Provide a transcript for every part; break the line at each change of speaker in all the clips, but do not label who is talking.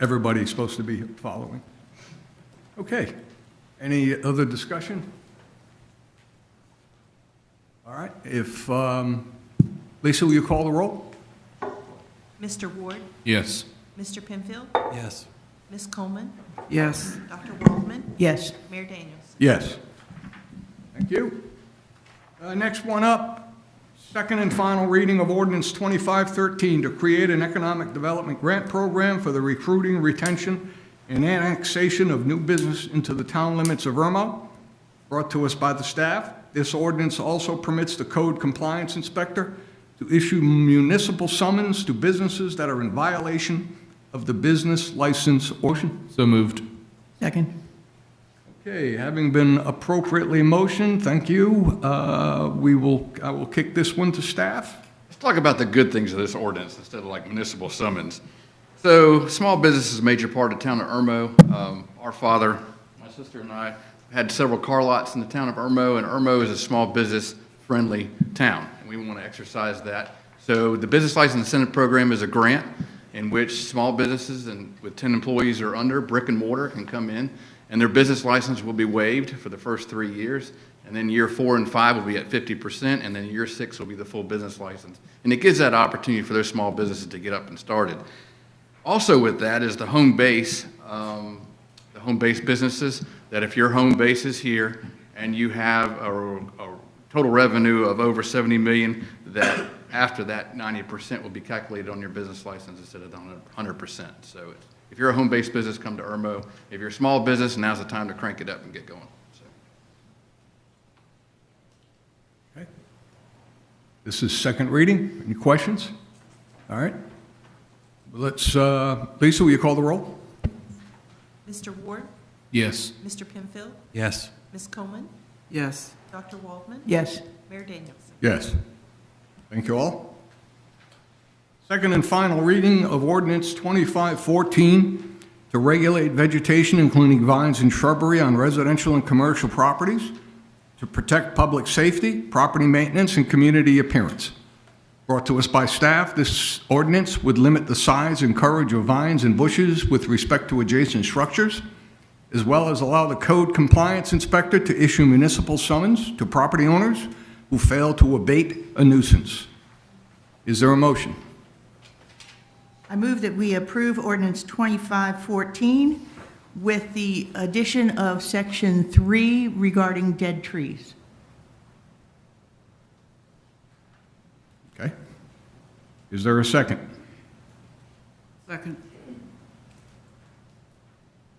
everybody's supposed to be following. Okay. Any other discussion? All right, if, um, Lisa, will you call the roll?
Mr. Ward,
Yes.
Mr. Penfield,
Yes.
Ms. Coleman,
Yes.
Dr. Waldman,
Yes.
Mayor Daniels.
Yes. Thank you. Uh, Next one up, second and final reading of ordinance 2513 to create an economic development grant program for the recruiting, retention, and annexation of new business into the town limits of Irma, brought to us by the staff. This ordinance also permits the code compliance inspector to issue municipal summons to businesses that are in violation of the business license ordinance.
So moved.
Second.
Okay, having been appropriately motioned, thank you, uh, we will, I will kick this one to staff.
Let's talk about the good things of this ordinance instead of like municipal summons. So, small business is a major part of town of Irmo. Um, our father, my sister and I had several car lots in the town of Irmo, and Irmo is a small business friendly town, and we want to exercise that. So, the business license incentive program is a grant in which small businesses and with 10 employees or under, brick and mortar, can come in, and their business license will be waived for the first three years, and then year four and five will be at 50%, and then year six will be the full business license. And it gives that opportunity for those small businesses to get up and started. Also with that is the home base, um, the home base businesses, that if your home base is here and you have a, a total revenue of over 70 million, that after that, 90% will be calculated on your business license instead of on 100%. So it's- if you're a home based business, come to Irmo. If you're a small business, now's the time to crank it up and get going. So.
This is second reading, any questions? All right. Let's, uh, Lisa, will you call the roll?
Mr. Ward,
Yes.
Mr. Penfield,
Yes.
Ms. Coleman,
Yes.
Dr. Waldman,
Yes.
Mayor Daniels.
Yes. Thank you all. Second and final reading of ordinance 2514 to regulate vegetation, including vines and shrubbery on residential and commercial properties, to protect public safety, property maintenance, and community appearance. Brought to us by staff, this ordinance would limit the size and coverage of vines and bushes with respect to adjacent structures, as well as allow the code compliance inspector to issue municipal summons to property owners who fail to abate a nuisance. Is there a motion?
I move that we approve ordinance 2514 with the addition of section 3 regarding dead trees.
Okay. Is there a second?
Second.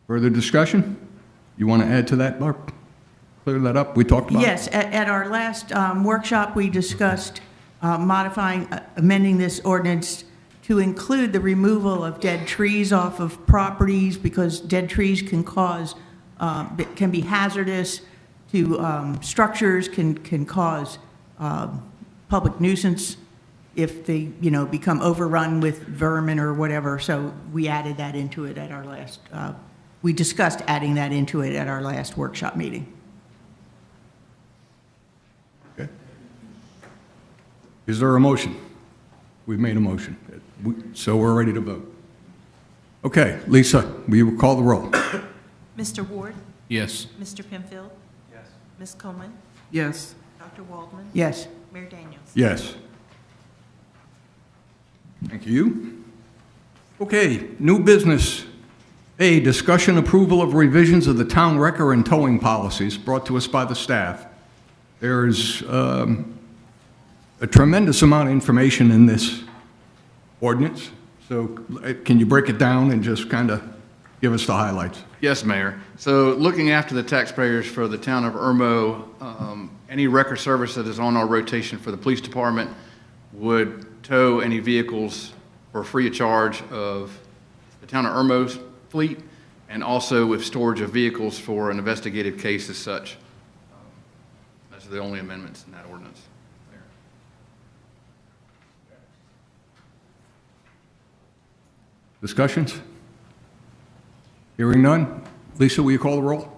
Further discussion? You want to add to that, Barb? Clear that up? We talked about it.
Yes, at, at our last um, workshop, we discussed uh, modifying, uh, amending this ordinance to include the removal of dead trees off of properties because dead trees can cause, uh, b- can be hazardous to um, structures, can, can cause um, public nuisance if they, you know, become overrun with vermin or whatever. So we added that into it at our last, uh, we discussed adding that into it at our last workshop meeting.
Is there a motion? We've made a motion, We- so we're ready to vote. Okay, Lisa, will you call the roll?
Mr. Ward,
Yes.
Mr. Penfield. Yes. Ms. Coleman,
Yes.
Dr. Waldman,
Yes.
Mayor Daniels.
Yes. Thank you. Okay, new business. A, discussion approval of revisions of the town wrecker and towing policies brought to us by the staff. There is um, a tremendous amount of information in this ordinance, so uh, can you break it down and just kind of give us the highlights?
Yes, Mayor. So looking after the taxpayers for the town of Irmo, um, any record service that is on our rotation for the police department would tow any vehicles for free of charge of the town of Irmo's fleet and also with storage of vehicles for an investigative case as such. That's the only amendments in that ordinance.
Discussions? Hearing none. Lisa, will you call the roll?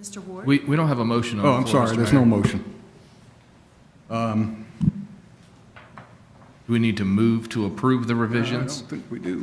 Mr. Ward,
We, we don't have a motion on the
Oh,
floor.
I'm
Mr.
sorry, there's no
Mayor.
motion.
Do
Do we need to move to approve the
I
revisions?
don't think we do.